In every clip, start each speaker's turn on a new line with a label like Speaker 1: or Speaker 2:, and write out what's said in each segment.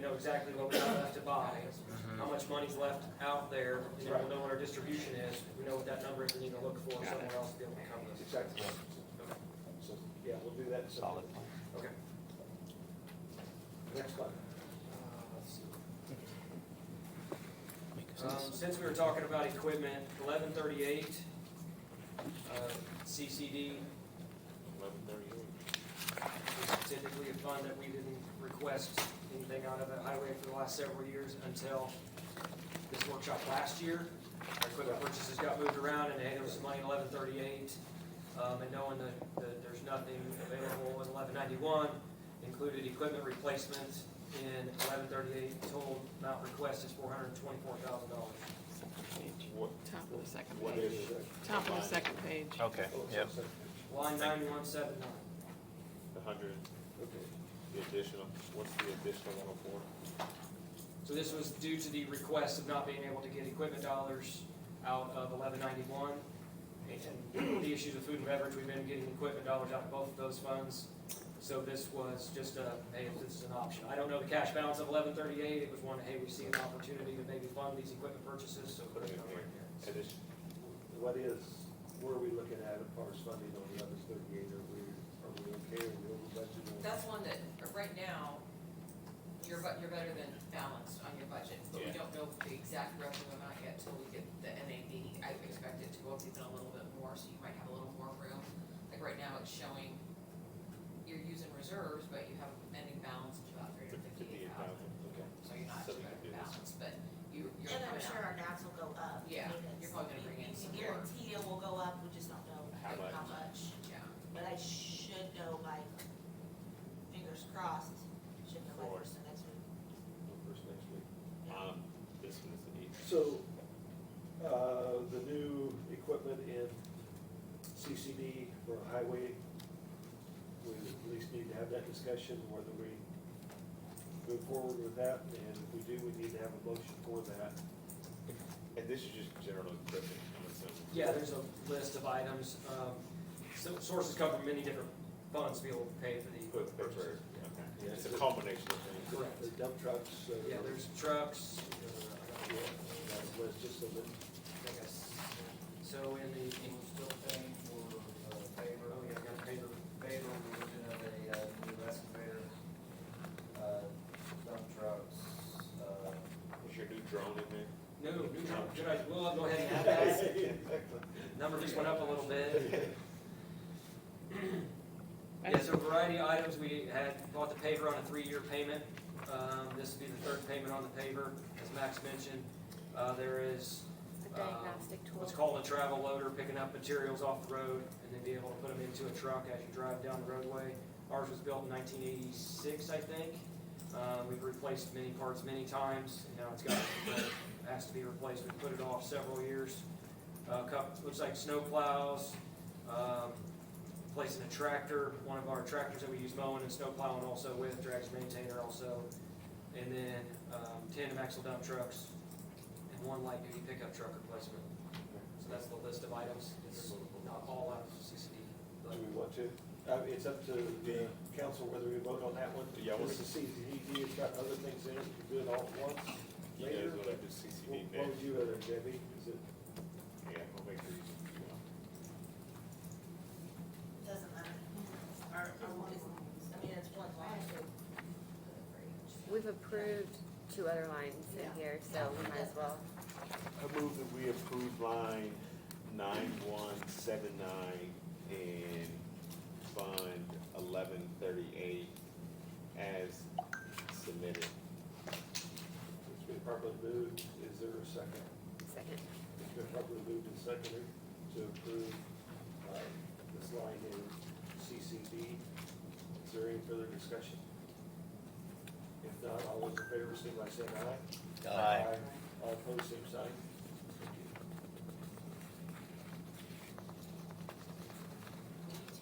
Speaker 1: know exactly what we got left to buy, how much money's left out there, and then we'll know what our distribution is, we know what that number is, we need to look for somewhere else to be able to cover this.
Speaker 2: Exactly.
Speaker 1: Okay.
Speaker 2: So, yeah, we'll do that. So,
Speaker 3: Solid plan.
Speaker 1: Okay.
Speaker 2: Next slide.
Speaker 1: Um, since we were talking about equipment, eleven thirty-eight, uh, CCD. Eleven thirty-eight. Typically a fund that we didn't request anything out of the highway for the last several years until this workshop last year. Our equipment purchases got moved around and hey, there was money in eleven thirty-eight. Um, and knowing that, that there's nothing available in eleven ninety-one, included equipment replacement in eleven thirty-eight, total amount request is four hundred and twenty-four thousand dollars.
Speaker 2: What,
Speaker 4: Top of the second
Speaker 2: what
Speaker 4: page.
Speaker 2: is it?
Speaker 4: Top of the second page.
Speaker 3: Okay,
Speaker 2: Oh, it's
Speaker 3: yep.
Speaker 2: on second.
Speaker 1: Line ninety-one seven nine,
Speaker 5: The hundred,
Speaker 2: Okay.
Speaker 5: the additional, what's the additional one oh four?
Speaker 1: so this was due to the request of not being able to get equipment dollars out of eleven ninety-one. And the issues of food and beverage, we've been getting equipment dollars out of both of those funds, so this was just a, hey, this is an option. I don't know the cash balance of eleven thirty-eight, it was one, hey, we see an opportunity to maybe fund these equipment purchases, so put it on right here.
Speaker 5: Addition,
Speaker 2: What is, where are we looking at as far as funding on the other thirty-eight? Are we, are we okay? Are we over budget?
Speaker 6: That's one that, uh, right now, you're bu- you're better than balanced on your budget, but we
Speaker 5: Yeah.
Speaker 6: don't know the exact revenue amount yet till we get the NAV. I expect it to go up even a little bit more, so you might have a little more room. Like right now, it's showing you're using reserves, but you have an ending balance of about three hundred
Speaker 5: fifty-eight
Speaker 6: fifty-eight thousand.
Speaker 5: thousand, okay.
Speaker 6: So you're not
Speaker 5: So
Speaker 6: too
Speaker 5: we
Speaker 6: bad
Speaker 5: can
Speaker 6: of
Speaker 5: do this.
Speaker 6: balance, but you, you're
Speaker 7: And I'm
Speaker 6: coming
Speaker 7: sure
Speaker 6: out.
Speaker 7: our gas will go up.
Speaker 6: Yeah,
Speaker 7: because
Speaker 6: you're probably gonna bring in
Speaker 7: you can
Speaker 6: some more.
Speaker 7: Guarantee it will go up, we just don't know
Speaker 5: How much?
Speaker 7: how much,
Speaker 6: Yeah,
Speaker 7: but I should know by, fingers crossed, should know by
Speaker 5: Forward.
Speaker 7: first of next week.
Speaker 2: First next week.
Speaker 5: Um, this was the,
Speaker 2: So, uh, the new equipment in CCD for the highway, we at least need to have that discussion whether we move forward with that, and if we do, we need to have a motion for that.
Speaker 5: and this is just general equipment, I'm assuming.
Speaker 1: Yeah, there's a list of items, um, so sources come from many different funds to be able to pay for the
Speaker 5: Equip-
Speaker 1: equipment
Speaker 5: equipment,
Speaker 1: purchases.
Speaker 5: okay.
Speaker 2: Yeah.
Speaker 5: It's a combination of things.
Speaker 1: Correct.
Speaker 2: The dump trucks, uh,
Speaker 1: Yeah, there's trucks.
Speaker 2: Yeah, that was just a little,
Speaker 1: So in the,
Speaker 8: We're still paying for, uh, paper,
Speaker 1: oh yeah, I got a paper,
Speaker 8: paper, we're looking at a, uh, new excavator, uh, dump trucks, uh,
Speaker 5: Is your new drone in there?
Speaker 1: no, new truck, good idea, we'll go ahead and add that. Number just went up a little bit. Yeah, so variety of items, we had bought the paver on a three-year payment. Um, this would be the third payment on the paver, as Max mentioned. Uh, there is
Speaker 9: A diagnostic tool.
Speaker 1: Um, what's called a travel loader, picking up materials off the road and then be able to put them into a truck as you drive down the roadway. Ours was built in nineteen eighty-six, I think. Uh, we've replaced many parts many times, and now it's got, it has to be replaced, we put it off several years. Uh, cup, looks like snow plows, um, placing a tractor, one of our tractors that we use mowing and snow plowing also with, drags maintainer also. And then, um, tandem axle dump trucks, and one light duty pickup truck replacement. So that's the list of items, it's not all out of CCD, but
Speaker 2: do we want to? Uh, it's up to the council whether we vote on that one.
Speaker 5: Yeah, I wanna-
Speaker 2: This is CCD, it's got other things in it, we can do it all at once.
Speaker 5: You
Speaker 2: Later.
Speaker 5: guys will have
Speaker 2: What
Speaker 5: to CCD
Speaker 2: what
Speaker 5: next.
Speaker 2: would you rather, Debbie? Is it,
Speaker 5: Yeah, I'll make sure you do
Speaker 7: Doesn't matter. Or, or one, I mean, it's one line. so put it for each.
Speaker 9: We've approved two other lines in
Speaker 7: Yeah.
Speaker 9: here, so we might as well.
Speaker 5: I move that we approve line nine one seven nine and fund eleven thirty-eight as submitted.
Speaker 2: it's been properly moved, is there a second?
Speaker 9: Second.
Speaker 2: It's been properly moved and seconded to approve, uh, this line in CCD. Is there any further discussion? If not, all those in favor, signify by saying aye.
Speaker 3: Aye.
Speaker 2: All opposed, same sign. Thank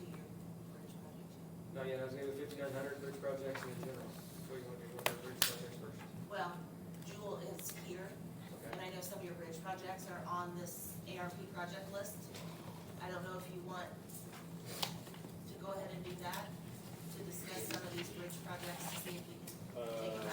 Speaker 2: you.
Speaker 1: No, oh
Speaker 7: We need to your bridge project.
Speaker 1: yeah, I was gonna go fifty-nine hundred, bridge projects in general, so you wanna do one of the bridge projects first.
Speaker 7: Well, Jewel is here, and
Speaker 1: Okay.
Speaker 7: I know some of your bridge projects are on this ARP project list. I don't know if you want to go ahead and do that, to discuss some of these bridge projects, to see if we can
Speaker 2: Uh,
Speaker 7: take a